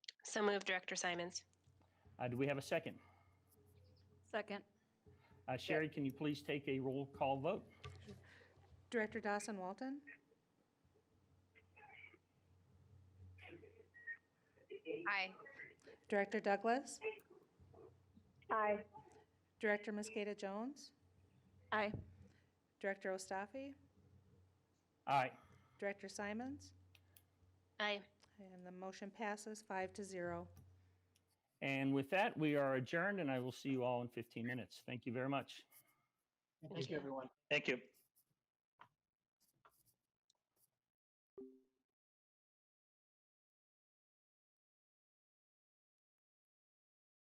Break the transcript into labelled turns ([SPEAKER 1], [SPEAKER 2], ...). [SPEAKER 1] So moved, Director Simons.
[SPEAKER 2] Uh, do we have a second?
[SPEAKER 3] Second.
[SPEAKER 2] Uh, Sherry, can you please take a roll call vote?
[SPEAKER 4] Director Dawson Walton?
[SPEAKER 1] Aye.
[SPEAKER 4] Director Douglas?
[SPEAKER 5] Aye.
[SPEAKER 4] Director Mosqueda Jones?
[SPEAKER 3] Aye.
[SPEAKER 4] Director Ostafi?
[SPEAKER 2] Aye.
[SPEAKER 4] Director Simons?
[SPEAKER 1] Aye.
[SPEAKER 4] And the motion passes five to zero.
[SPEAKER 2] And with that, we are adjourned, and I will see you all in 15 minutes. Thank you very much.
[SPEAKER 6] Thank you, everyone.
[SPEAKER 7] Thank you.